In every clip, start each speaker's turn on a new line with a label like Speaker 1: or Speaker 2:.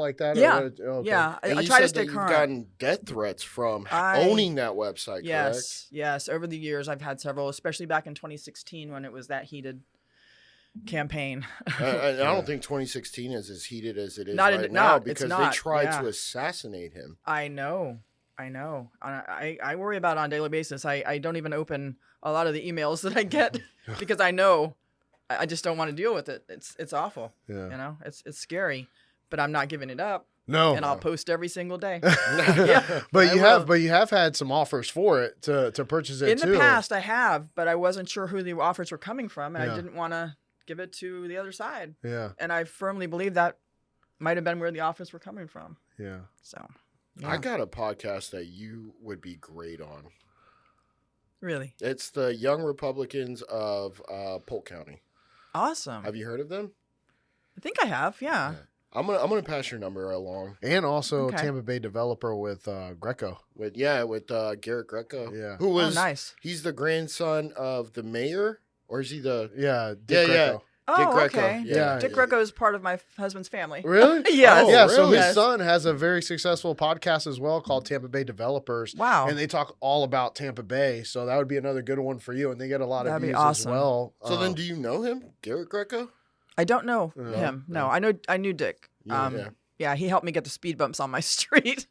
Speaker 1: like that? or
Speaker 2: Yeah.
Speaker 1: what it- okay.
Speaker 2: Yeah, I,
Speaker 3: And
Speaker 2: I
Speaker 3: you
Speaker 2: try to
Speaker 3: said
Speaker 2: stay
Speaker 3: that
Speaker 2: current.
Speaker 3: You've gotten death threats from h-
Speaker 2: I-
Speaker 3: owning that website,
Speaker 2: yes, yes. Over the years, I've had several, especially back in 2016 when it was that heated campaign.
Speaker 3: correct? I, I- I
Speaker 1: Yeah.
Speaker 3: don't think 2016 is as heated as it is
Speaker 2: Not in-
Speaker 3: right now
Speaker 2: not- it's
Speaker 3: because
Speaker 2: not,
Speaker 3: they tried
Speaker 2: yeah.
Speaker 3: to assassinate him.
Speaker 2: I know. I know. I, I, I worry about it on a daily basis. I, I don't even open a lot of the emails that I get because I know I, I just don't want to deal with it. It's it's awful.
Speaker 1: Yeah.
Speaker 2: You know, it's it's scary, but I'm not giving it up
Speaker 3: Oh,
Speaker 1: No.
Speaker 2: and I'll post every single day.
Speaker 3: Yeah,
Speaker 1: but
Speaker 2: I
Speaker 1: you have
Speaker 2: will.
Speaker 1: but you have had some offers for it to to purchase it
Speaker 2: In
Speaker 1: too.
Speaker 2: the past I have, but I wasn't sure who the offers were coming from and
Speaker 1: Yeah.
Speaker 2: I didn't want to give it to the other side.
Speaker 1: Yeah.
Speaker 2: And I firmly believe that might have been where the offers were coming from.
Speaker 1: Yeah.
Speaker 2: So
Speaker 3: I
Speaker 2: yeah.
Speaker 3: got a podcast that you would be great on.
Speaker 2: really
Speaker 3: It's the Young Republicans of uh, Polk County.
Speaker 2: awesome.
Speaker 3: Have you heard of them?
Speaker 2: I think I have, yeah.
Speaker 3: I'm gonna I'm gonna pass your number along
Speaker 1: And also
Speaker 2: Okay.
Speaker 1: Tampa Bay developer with uh, Greco.
Speaker 3: with yeah with uh, Garrett Greco.
Speaker 1: Yeah.
Speaker 3: who
Speaker 2: Oh,
Speaker 3: was
Speaker 2: nice.
Speaker 3: he's the grandson of the mayor or is he the
Speaker 1: Yeah.
Speaker 3: Yeah,
Speaker 1: Dick
Speaker 3: yeah.
Speaker 1: Greco.
Speaker 2: Oh,
Speaker 3: Greco,
Speaker 2: okay.
Speaker 1: Yeah.
Speaker 2: Dick Greco is part of my f- husband's family.
Speaker 1: Really?
Speaker 2: Yes.
Speaker 3: Oh,
Speaker 1: yeah, so his
Speaker 2: really?
Speaker 1: son has a very successful podcast as well called Tampa Bay Developers,
Speaker 2: Wow.
Speaker 1: and they talk all about Tampa Bay. So that would be another good one for you, and they get a lot of
Speaker 2: That'd be
Speaker 1: views
Speaker 2: awesome.
Speaker 1: as well.
Speaker 3: So
Speaker 1: Uh,
Speaker 2: Oh.
Speaker 3: then, do you know him, Garrett Greco?
Speaker 2: I don't know
Speaker 1: No,
Speaker 2: him. No,
Speaker 1: no.
Speaker 2: I know I knew Dick.
Speaker 3: Yeah,
Speaker 2: um,
Speaker 3: yeah.
Speaker 2: yeah. he helped me get the speed bumps on my street.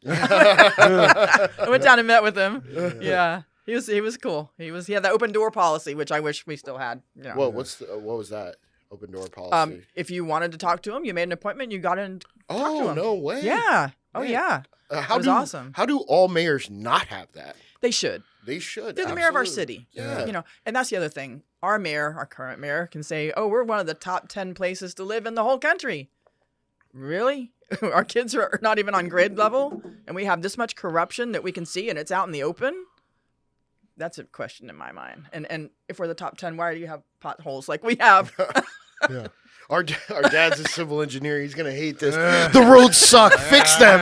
Speaker 2: I
Speaker 3: yeah,
Speaker 2: went down and met with him.
Speaker 1: yeah.
Speaker 2: Yeah. He was he was cool. He was he had that open door policy, which I wish we still had. Yeah.
Speaker 3: Well, what's the, uh, what was that open door policy?
Speaker 2: um, if you wanted to talk to him, you made an appointment. You got in. to
Speaker 3: oh
Speaker 2: him.
Speaker 3: no way!
Speaker 2: Yeah. Oh
Speaker 3: man.
Speaker 2: yeah.
Speaker 3: Uh, how
Speaker 2: It was
Speaker 3: do
Speaker 2: awesome.
Speaker 3: how do all mayors not have that?
Speaker 2: They should.
Speaker 3: They should.
Speaker 2: They're the mayor of our
Speaker 3: absolutely.
Speaker 2: city.
Speaker 3: Yeah.
Speaker 2: You know, and that's the other thing. Our mayor, our current mayor, can say, "Oh, we're one of the top ten places to live in the whole country." Really? our kids are not even on grade level, and we have this much corruption that we can see, and it's out in the open. That's a question in my mind. And and if we're the top ten, why do you have potholes like we have?
Speaker 3: Our da- our dad's a civil engineer. He's gonna hate this.
Speaker 1: Ugh.
Speaker 3: the roads suck. Fix them.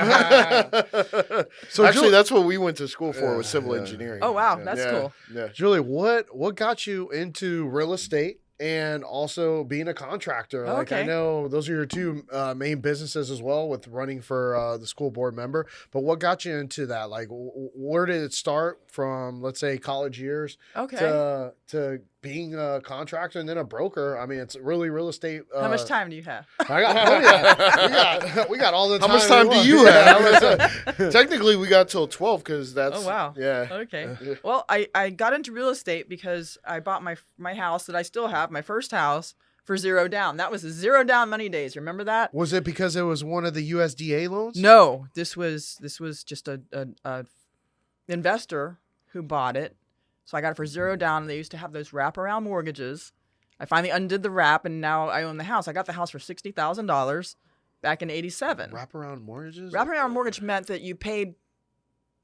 Speaker 1: So
Speaker 3: Actually,
Speaker 1: Julie,
Speaker 3: that's what we went to school for was
Speaker 1: Yeah,
Speaker 3: civil
Speaker 1: yeah.
Speaker 3: engineering.
Speaker 2: oh wow,
Speaker 1: Yeah.
Speaker 2: that's
Speaker 3: Yeah,
Speaker 2: cool.
Speaker 3: Yeah.
Speaker 1: Julie, what what got you into real estate and also being a contractor? Like I
Speaker 2: Okay.
Speaker 1: know those are your two uh, main businesses as well, with running for uh, the school board member. But what got you into that? Like, w- w- where did it start from? Let's say college years
Speaker 2: Okay.
Speaker 1: to to being a contractor and then a broker. I mean, it's really real estate. Uh,
Speaker 2: How much time do you have?
Speaker 1: I got, oh, yeah. we, got, we got all the
Speaker 3: How
Speaker 1: time.
Speaker 3: much
Speaker 1: we
Speaker 3: time do
Speaker 1: want.
Speaker 3: you
Speaker 1: Yeah,
Speaker 3: have?
Speaker 1: how much time-
Speaker 3: Technically, we got till twelve because that's.
Speaker 2: Oh, wow.
Speaker 3: Yeah.
Speaker 2: Okay.
Speaker 3: Yeah.
Speaker 2: Well, I, I got into real estate because I bought my my house that I still have, my first house, for zero down. That was the zero down money days. Remember that?
Speaker 1: Was it because it was one of the USDA loans?
Speaker 2: No, this was this was just a, a, a investor who bought it. So I got it for zero down. They used to have those wraparound mortgages. I finally undid the wrap, and now I own the house. I got the house for sixty thousand dollars back in '87.
Speaker 1: Wraparound mortgages.
Speaker 2: Wraparound mortgage meant that you paid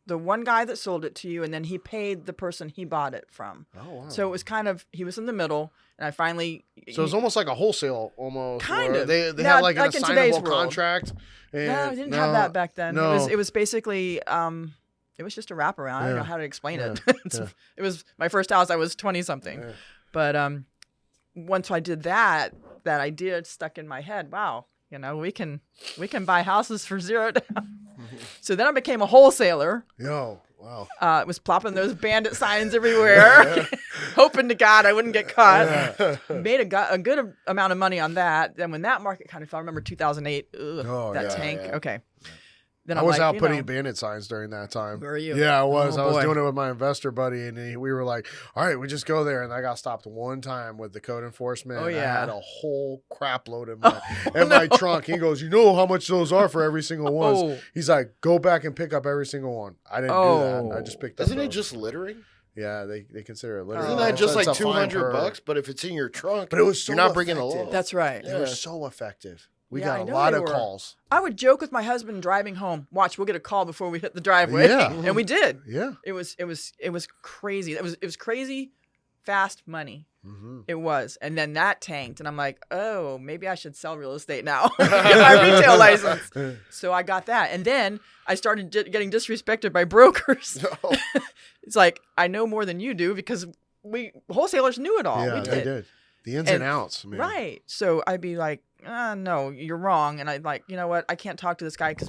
Speaker 2: the one guy that sold it to you, and then he paid the person he bought it from.
Speaker 1: Oh wow.
Speaker 2: So it was kind of he was in the middle, and I finally.
Speaker 1: So it's almost like a wholesale, almost.
Speaker 2: Kind
Speaker 1: where
Speaker 2: of.
Speaker 1: They they
Speaker 2: Now,
Speaker 1: had like an
Speaker 2: like in today's
Speaker 1: assignable
Speaker 2: world.
Speaker 1: contract. And
Speaker 2: no, I didn't have that
Speaker 1: no,
Speaker 2: back then. It was
Speaker 1: no.
Speaker 2: it was basically um, it was just a wraparound. I don't
Speaker 1: Yeah.
Speaker 2: know how to explain it. It's-
Speaker 1: yeah.
Speaker 2: It was my first house. I was twenty something,
Speaker 1: Yeah.
Speaker 2: but um, once I did that, that idea stuck in my head. Wow, you know we can we can buy houses for zero down. so then I became a wholesaler.
Speaker 1: Yo, wow.
Speaker 2: uh, was plopping those bandit signs everywhere, hoping to God I wouldn't get caught. Made a, go- a good amount of money on that. Then when that market kind of fell, I remember 2008, ugh,
Speaker 1: Oh,
Speaker 2: that
Speaker 1: yeah,
Speaker 2: tank.
Speaker 3: yeah.
Speaker 2: Okay. Then
Speaker 1: I
Speaker 2: I'm
Speaker 1: was
Speaker 2: like,
Speaker 1: out
Speaker 2: you
Speaker 1: putting
Speaker 2: know,
Speaker 1: bandit signs during that time.
Speaker 2: Were you?
Speaker 1: Yeah, I was.
Speaker 2: Oh,
Speaker 1: I was
Speaker 2: boy.
Speaker 1: doing it with my investor buddy, and he, we were like, "All right, we just go there." And I got stopped one time with the code enforcement.
Speaker 2: Oh,
Speaker 1: and I
Speaker 2: yeah. Oh,
Speaker 1: had a whole crap load in my in my trunk. He goes, "You know how much those are for every single one."
Speaker 2: Oh,
Speaker 1: He's like, "Go back and pick up every single one." I didn't do that. I
Speaker 2: Oh.
Speaker 1: just picked up.
Speaker 3: Isn't it
Speaker 1: those.
Speaker 3: just littering?
Speaker 1: Yeah, they, they consider it literally.
Speaker 3: Isn't
Speaker 2: Oh,
Speaker 3: that just
Speaker 2: so
Speaker 3: like
Speaker 1: it's a
Speaker 3: two
Speaker 1: fine per-
Speaker 3: hundred bucks? But if it's in your trunk,
Speaker 1: But it was so
Speaker 3: you're not bringing a
Speaker 1: effective.
Speaker 3: law.
Speaker 2: Oh, that's right.
Speaker 1: They were
Speaker 3: Yeah.
Speaker 1: so effective. We
Speaker 2: Yeah, I
Speaker 1: got a
Speaker 2: know
Speaker 1: lot
Speaker 2: they
Speaker 1: of
Speaker 2: were.
Speaker 1: calls.
Speaker 2: I would joke with my husband driving home. Watch, we'll get a call before we hit the driveway.
Speaker 1: Yeah.
Speaker 2: and we did.
Speaker 1: Yeah.
Speaker 2: It was it was it was crazy. It was it was crazy, fast money. It was. And then that tanked. And I'm like, oh, maybe I should sell real estate now. Get my retail license. So I got that. And then I started di- getting disrespected by brokers.
Speaker 3: Oh,
Speaker 2: It's like, I know more than you do because we wholesalers knew it all.
Speaker 1: yeah,
Speaker 2: Oh, we
Speaker 1: they
Speaker 2: did.
Speaker 1: did. The ins and,
Speaker 2: And-
Speaker 1: outs, man.
Speaker 2: Right. So I'd be like, ah, no, you're wrong. And I like, you know what? I can't talk to this guy because